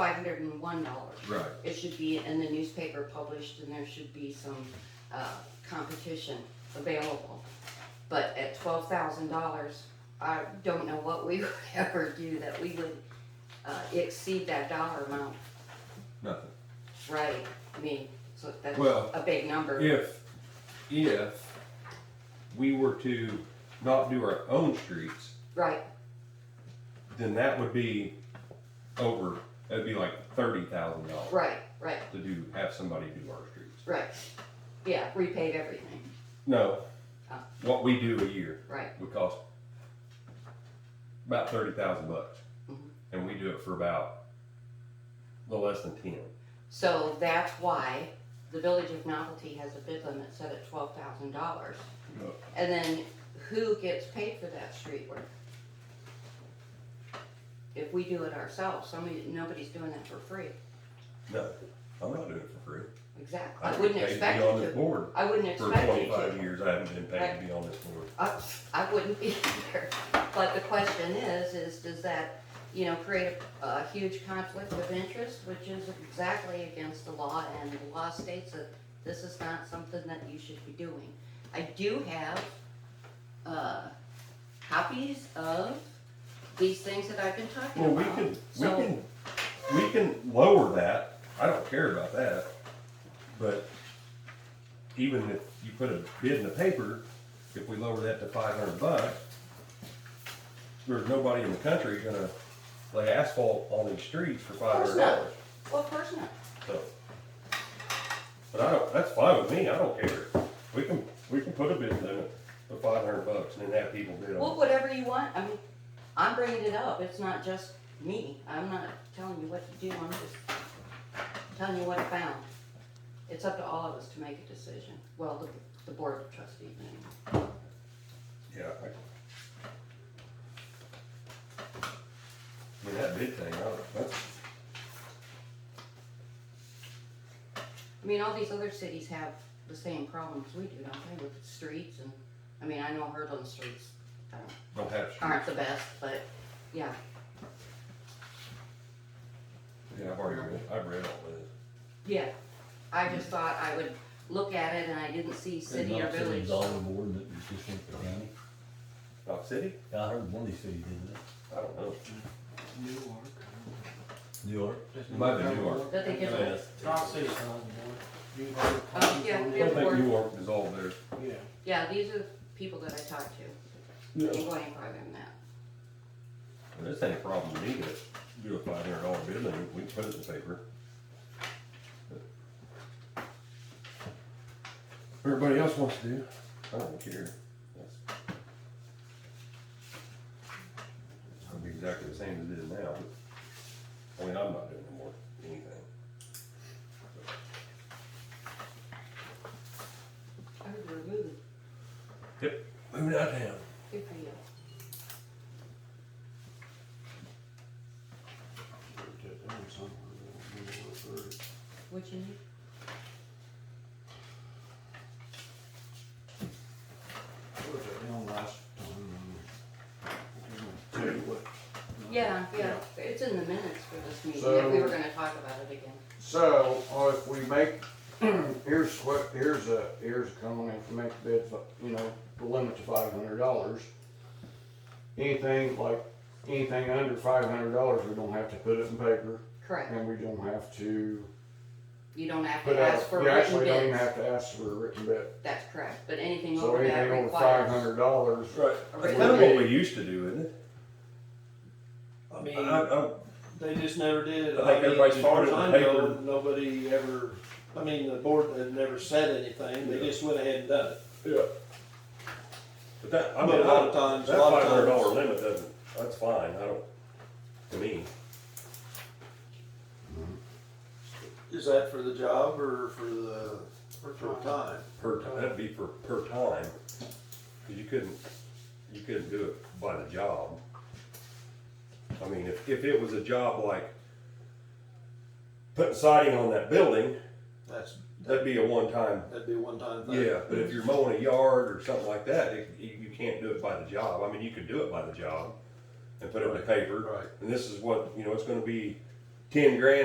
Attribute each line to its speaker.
Speaker 1: hundred and one dollars.
Speaker 2: Right,
Speaker 1: It should be in the newspaper published and there should be some, uh, competition available. But at twelve thousand dollars, I don't know what we would ever do that we would, uh, exceed that dollar amount,
Speaker 2: nothing.
Speaker 1: right? I mean, so that's
Speaker 2: Well,
Speaker 1: a big number.
Speaker 2: If, if we were to not do our own streets,
Speaker 1: Right,
Speaker 2: then that would be over, that'd be like thirty thousand dollars
Speaker 1: right, right,
Speaker 2: to do, have somebody do our streets.
Speaker 1: right. Yeah, repave everything,
Speaker 2: No,
Speaker 1: Oh.
Speaker 2: what we do a year
Speaker 1: right,
Speaker 2: would cost about thirty thousand bucks.
Speaker 1: Mhm.
Speaker 2: And we do it for about the less than ten.
Speaker 1: So that's why the Village of Novelty has a bid limit set at twelve thousand dollars.
Speaker 2: Yep.
Speaker 1: And then who gets paid for that street work? If we do it ourselves, somebody, nobody's doing that for free,
Speaker 2: No, I'm not doing it for free.
Speaker 1: exactly,
Speaker 2: I've
Speaker 1: I
Speaker 2: been
Speaker 1: wouldn't
Speaker 2: paid to
Speaker 1: expect
Speaker 2: Be on
Speaker 1: you
Speaker 2: this
Speaker 1: to,
Speaker 2: board
Speaker 1: I wouldn't
Speaker 2: for
Speaker 1: expect you
Speaker 2: twenty-five
Speaker 1: to.
Speaker 2: years, I haven't been paid to be on this board.
Speaker 1: I, I wouldn't be either, but the question is, is does that, you know, create a, a huge conflict of interest, which is exactly against the law, and the law states that this is not something that you should be doing. I do have, uh, copies of these things that I've been talking
Speaker 2: Well, we
Speaker 1: about,
Speaker 2: can, we
Speaker 1: so.
Speaker 2: can, we can lower that, I don't care about that, but even if you put a bid in the paper, if we lower that to five hundred bucks, there's nobody in the country gonna lay asphalt on these streets for five
Speaker 1: course
Speaker 2: hundred
Speaker 1: not.
Speaker 2: dollars,
Speaker 1: Well, of course not,
Speaker 2: so. But I don't, that's fine with me, I don't care, we can, we can put a bid limit to five hundred bucks and then have people bid on
Speaker 1: well,
Speaker 2: it.
Speaker 1: whatever you want, I mean, I'm bringing it up, it's not just me, I'm not telling you what to do, I'm just telling you what I found. It's up to all of us to make a decision, well, the, the board of trustees, anyway.
Speaker 2: Yeah. I I mean, that big thing, I don't, that's,
Speaker 1: I mean, all these other cities have the same problems we do, don't they, with streets and, I mean, I know Hurdlin streets uh,
Speaker 2: don't have
Speaker 1: aren't
Speaker 2: streets.
Speaker 1: the best, but, yeah,
Speaker 2: Yeah, I've already read, I've read all
Speaker 1: yeah. I just thought I would look at it and I didn't see city or
Speaker 3: Not city,
Speaker 1: village.
Speaker 3: it's all the board that was just in the county.
Speaker 2: this. Not city?
Speaker 3: Yeah, I heard one of these cities did
Speaker 2: I don't know.
Speaker 4: Newark.
Speaker 3: that. New York.
Speaker 2: It might be New York.
Speaker 1: That they give
Speaker 3: Yeah,
Speaker 1: it,
Speaker 3: that's-
Speaker 4: Roxy's on the board.
Speaker 1: Oh, yeah,
Speaker 2: I don't
Speaker 1: yeah.
Speaker 2: think New York is all there.
Speaker 4: Yeah.
Speaker 1: yeah, these are the people that I talked to, I ain't going any farther than that.
Speaker 2: Well, This ain't a problem to me to do a five hundred dollar bid limit, we can put it in the paper. Everybody else wants to do, I don't care. That's It'll be exactly the same as it is now, but, I mean, I'm not doing no more anything.
Speaker 1: I heard we're moving,
Speaker 2: Moving out of town.
Speaker 1: good for you. What you need? Yeah, yeah, it's in the minutes for this meeting, that we were
Speaker 5: So-
Speaker 1: gonna talk about it again.
Speaker 5: So, uh, if we make, here's what, here's a, here's a comment, if we make the bid, you know, the limit to five hundred dollars. Anything like, anything under five hundred dollars, we don't have to put it in paper,
Speaker 1: Correct,
Speaker 5: and we don't have to
Speaker 1: you don't have
Speaker 5: put
Speaker 1: to
Speaker 5: out,
Speaker 1: ask for
Speaker 5: uh, we
Speaker 1: written
Speaker 5: actually don't even
Speaker 1: bids,
Speaker 5: have to ask for a written bid.
Speaker 1: that's correct, but anything
Speaker 5: So
Speaker 1: over that
Speaker 5: anything over five
Speaker 1: requires.
Speaker 5: hundred dollars,
Speaker 1: a
Speaker 2: Right. That's
Speaker 1: written
Speaker 2: kind of what
Speaker 1: bid.
Speaker 2: we used to do, isn't it?
Speaker 4: I mean-
Speaker 2: I, I,
Speaker 4: They just never did.
Speaker 2: I think everybody's
Speaker 4: mean, as far
Speaker 2: followed
Speaker 4: as I
Speaker 2: the
Speaker 4: know,
Speaker 2: paper.
Speaker 4: Nobody ever, I mean, the board had never said anything, they just went ahead and done it.
Speaker 2: Yeah. But that, I
Speaker 4: But
Speaker 2: mean,
Speaker 4: a lot of
Speaker 2: I-
Speaker 4: times, a
Speaker 2: that
Speaker 4: lot
Speaker 2: five
Speaker 4: of
Speaker 2: hundred dollar
Speaker 4: times.
Speaker 2: limit doesn't, that's fine, I don't, to me,
Speaker 4: Is that for the job or for the, for time?
Speaker 2: per, ti- that'd be for, per time. Cause you couldn't, you couldn't do it by the job. I mean, if, if it was a job like putting siding on that building,
Speaker 4: That's,
Speaker 2: that'd be a one-time,
Speaker 4: that'd be a one-time thing.
Speaker 2: yeah, but if you're mowing a yard or something like that, it- you, you can't do it by the job, I mean, you could do it by the job and put it in the paper.
Speaker 4: Right.
Speaker 2: And this is what, you know, it's gonna be ten grand